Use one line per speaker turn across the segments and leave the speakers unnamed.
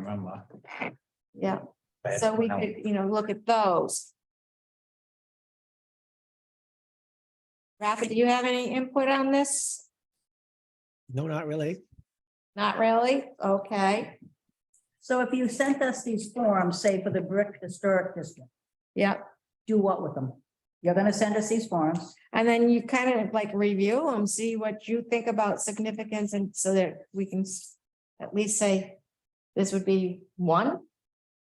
remember.
yeah, so we could, you know, look at those. Rafa, do you have any input on this?
No, not really.
Not really? Okay,
So if you sent us these forms, say for the brick historic district,
yeah.
do what with them? You're gonna send us these forms.
And then you kind of like review them, see what you think about significance and so that we can s- at least say this would be one,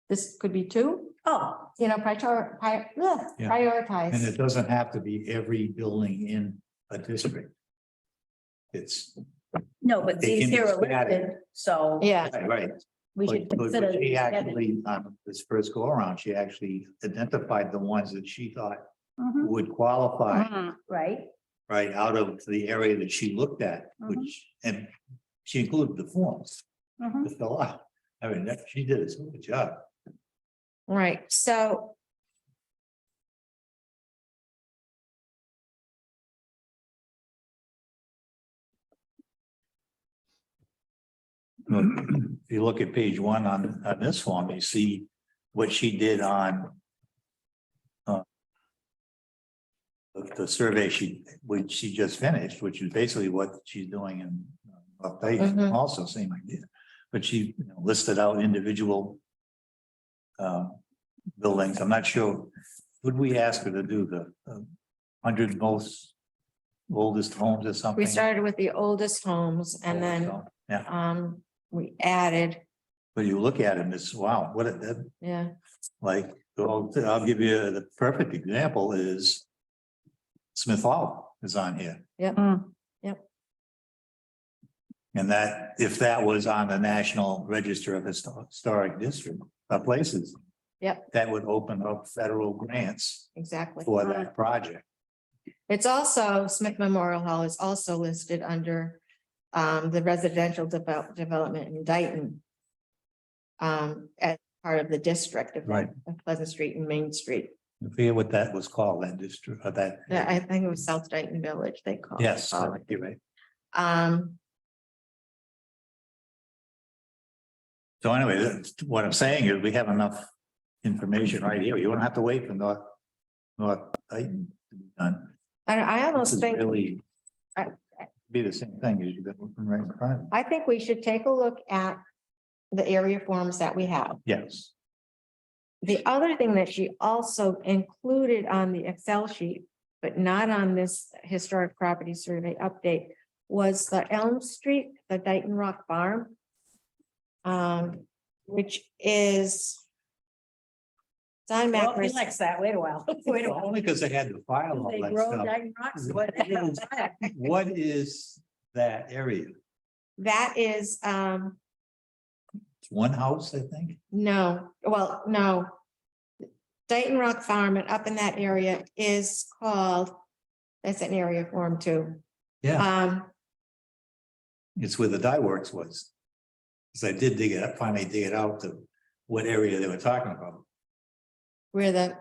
this could be two,
Oh,
you know, prior, pri- ugh,
Yeah. And it
prioritize.
doesn't have to be every building in a district. It's,
no, but
They
these
can be
here are
scattered.
listed, so
Yeah,
right, right.
we
But
should
but-
consider.
but She
these together.
actually, um, this first go around, she actually identified the ones that she thought
Mhm,
would qualify,
Mm-hmm. Right,
right, out of the area that she looked at,
Mm-hmm.
which, and she included the forms
mhm.
to fill out. I mean, that, she did a super job.
right, so.
If you look at page one on, on this form, you see what she did on uh, the, the survey she, which she just finished, which is basically what she's doing in uh, North Dayton,
Mhm.
also same idea. But she you know, listed out individual um, buildings. I'm not sure, would we ask her to do the um, hundred most oldest homes or something?
We started with the oldest homes and then,
Yeah.
um, we added,
But you look at it and it's, wow, what, a- that,
yeah,
like, I'll, I'll give you the perfect example is Smith Hall is on here.
Yep.
Mm.
Yep.
And that, if that was on the National Register of Histo- Historic District, uh, places.
Yep.
That would open up federal grants
exactly.
for that project.
It's also, Smith Memorial Hall is also listed under um the residential develop development in Dayton. Um, as part of the district of
Right.
of Pleasant Street and Main Street.
I forget what that was called, that district, or that.
Yeah, I think it was South Dayton Village, they call. it.
Yes, you're right.
Um,
So anyway, that's- what I'm saying is we have enough information right here. You don't have to wait for North, North Dayton to be done.
I I
This
almost
is
think,
really
I-
be the same thing as you've been looking right in front. of you.
I think we should take a look at the area forms that we have.
Yes,
The other thing that she also included on the Excel sheet, but not on this historic property survey update, was the Elm Street, the Dayton Rock Farm. um, which is Don
Well,
Macris,
relax that, wait a while. Wait a
Well,
while.
only because they had to file
Do
all
They
that
grow
stuff.
diamond rocks?
What is, what is that area?
that is, um,
It's one house, I think.
no, well, no. Dayton Rock Farm and up in that area is called, that's an area form too.
Yeah,
Um,
it's where the dye works was. Because I did dig it up, finally dig it out to what area they were talking about.
where the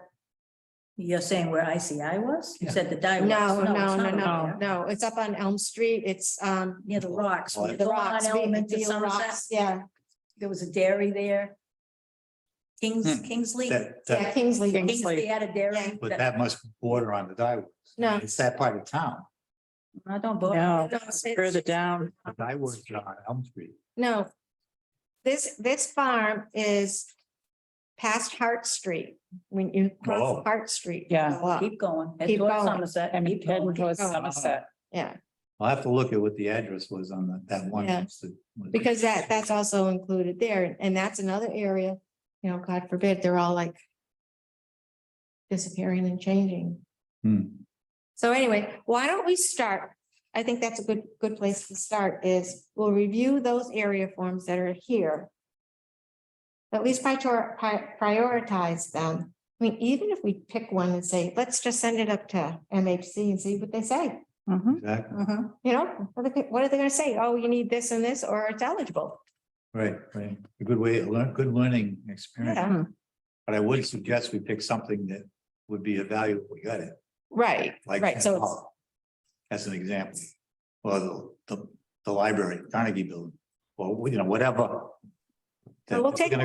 You're saying where ICI was? You
Yeah.
said the die.
No, no, no, no, no, it's up on Elm Street, it's um,
Near the rocks.
Well,
when you
the
go on
rocks, we-
Elm into
the
Somerset.
rocks, yeah,
There was a dairy there. Kings,
Hmm.
Kingsley.
That,
yeah,
that,
Kingsley,
Kingsley had a dairy.
but that must border on the dye. Works.
no.
It's that part of town.
I don't. vote.
No,
it's-
further down.
The dye works are on Elm Street.
No. This, this farm is past Hart Street, when you
Oh.
cross Hart Street.
Yeah.
go up.
Keep going. Head
Keep
towards
going.
Somerset.
And
keep
heading
going.
towards
Oh.
Somerset.
Yeah,
I'll have to look at what the address was on that- that one.
Yeah.
house that was-
because that, that's also included there, and that's another area, you know, God forbid, they're all like disappearing and changing.
Hmm.
So anyway, why don't we start? I think that's a good, good place to start is we'll review those area forms that are here. At least prior- pri- prioritize them. I mean, even if we pick one and say, let's just send it up to MHC and see what they say.
Mhm.
Exactly,
Mhm.
You know, what are they, what are they gonna say? Oh, you need this and this, or it's eligible.
right, right. A good way, a lear- good learning experience.
Yeah.
But I would suggest we pick something that would be a value if we got it,
Right,
like.
right, so it's,
Hall, As an example, or the, the, the library, Carnegie Building, or, you know, whatever
So we'll
If we're
take a
gonna